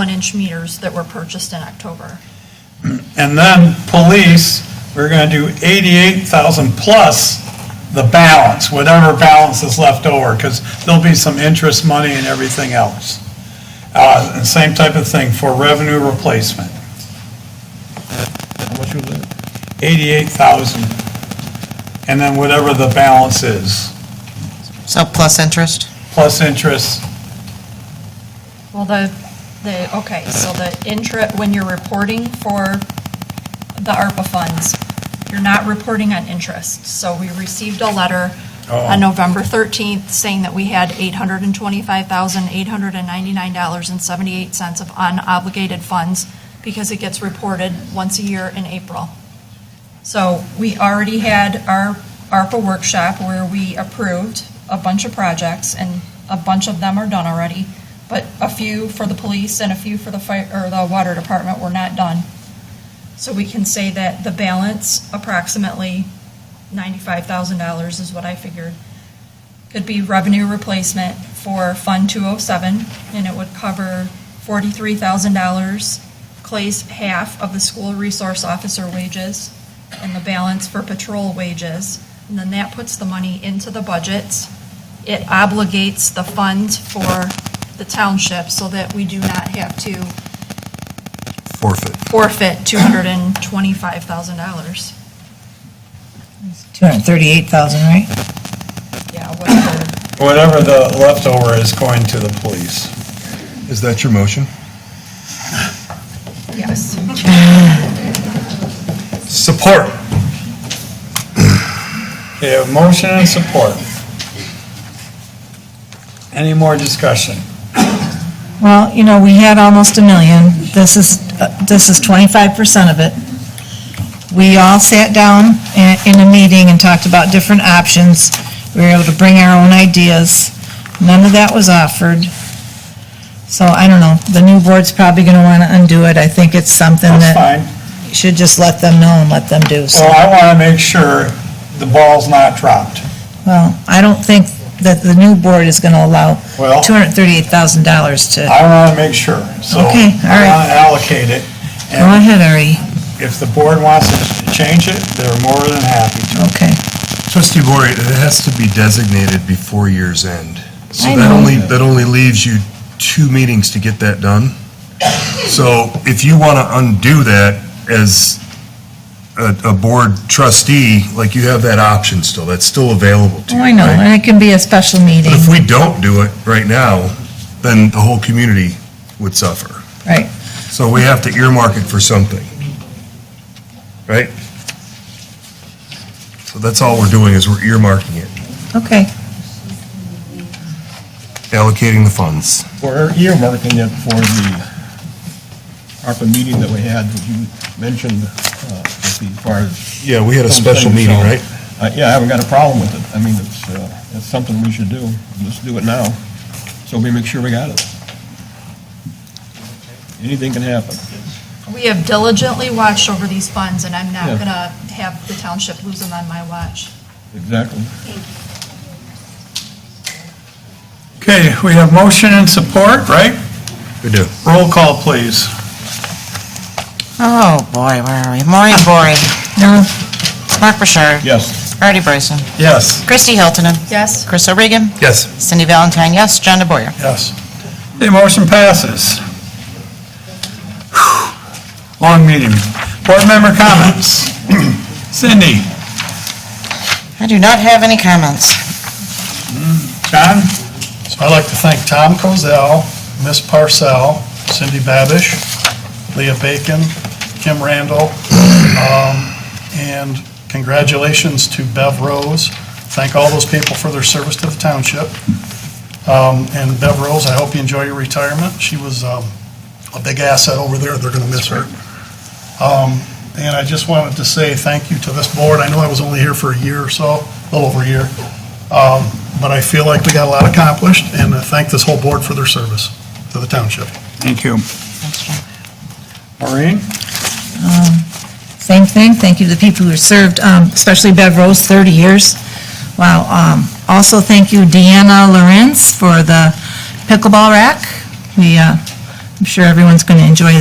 one-inch meters that were purchased in October. And then police, we're gonna do eighty-eight thousand plus the balance, whatever balance is left over, because there'll be some interest money and everything else. Uh, and same type of thing for revenue replacement, How much was that? eighty-eight thousand. And then whatever the balance is, So plus interest? plus interest, Well, the, the, okay, so the intra, when you're reporting for the ARPA funds, you're not reporting on interest. So we received a letter Uh-oh. on November 13th saying that we had $825,899.78 of unobligated funds because it gets reported once a year in April. So we already had our ARPA workshop where we approved a bunch of projects, and a bunch of them are done already, but a few for the police and a few for the fire, or the water department were not done. So we can say that the balance, approximately ninety-five thousand dollars is what I figured, could be revenue replacement for Fund two oh seven, and it would cover forty-three thousand dollars, Clay's half of the school resource officer wages, and the balance for patrol wages. And then that puts the money into the budgets. It obligates the fund for the township so that we do not have to Forfeit. forfeit $225,000. Two hundred and thirty-eight thousand, right? Yeah, whatever. whatever the leftover is going to the police. Is that your motion? Yes. Support. Okay, a motion and support. Any more discussion? Well, you know, we had almost a million. This is, uh, this is twenty-five percent of it. We all sat down i- in a meeting and talked about different options. We were able to bring our own ideas. None of that was offered. So I don't know, the new board's probably gonna wanna undo it. I think it's something That's that fine. you should just let them know and let them do. So, Well, I want to make sure the ball's not dropped. well, I don't think that the new board is gonna allow Well- two hundred and thirty-eight thousand dollars to, I want to make sure, so. Okay, all I right. want to allocate it, go and ahead, Ari. if the board wants to change it, they're more than happy to. Okay. Trustee Bory, it has to be designated before year's end. So I that know. only, that only leaves you two meetings to get that done. So if you want to undo that as a, a board trustee, like you have that option still, that's still available to Oh, you. I know, right? and it can be a special meeting, But if we don't do it right now, then the whole community would suffer. right? So we have to earmark it for something. Right? So that's all we're doing is we're earmarking it, Okay, allocating the funds. We're earmarking it for the ARPA meeting that we had, that you mentioned, uh, with the, as far as... Yeah, we had a special meeting, right? Uh, Yeah, I haven't got a problem with it. I mean, it's, uh, it's something we should do. Let's do it now, so we make sure we got it. Anything can happen. We have diligently watched over these funds, and I'm not Yeah. going to have the township lose them on my watch. Exactly. Okay, we have motion and support, right? We do. Roll call, please. Oh, boy, where are we? Maureen Bory. No. Mark Bouchard. Yes. Artie Bryson. Yes. Christie Hiltonen. Yes? Chris O'Regan. Yes. Cindy Valentine, yes. John DeBoyer. Yes. The motion passes. Long meeting. Board member comments. Cindy, I do not have any comments. John? So I'd like to thank Tom Kozel, Miss Parcell, Cindy Babish, Leah Bacon, Kim Randall, um, and congratulations to Bev Rose. Thank all those people for their service to the township. Um, And Bev Rose, I hope you enjoy your retirement. She was um, a big asset over there, they're going to miss her. Um, And I just wanted to say thank you to this board. I know I was only here for a year or so, a little over a year. Um, But I feel like we got a lot accomplished, and I thank this whole board for their service to the township. Thank you. Thanks, John. Maureen? Same thing, thank you to the people who served, um, especially Bev Rose, 30 years. Wow. um, Also, thank you Deanna Lorenz for the pickleball rack. We uh, I'm sure everyone's going to enjoy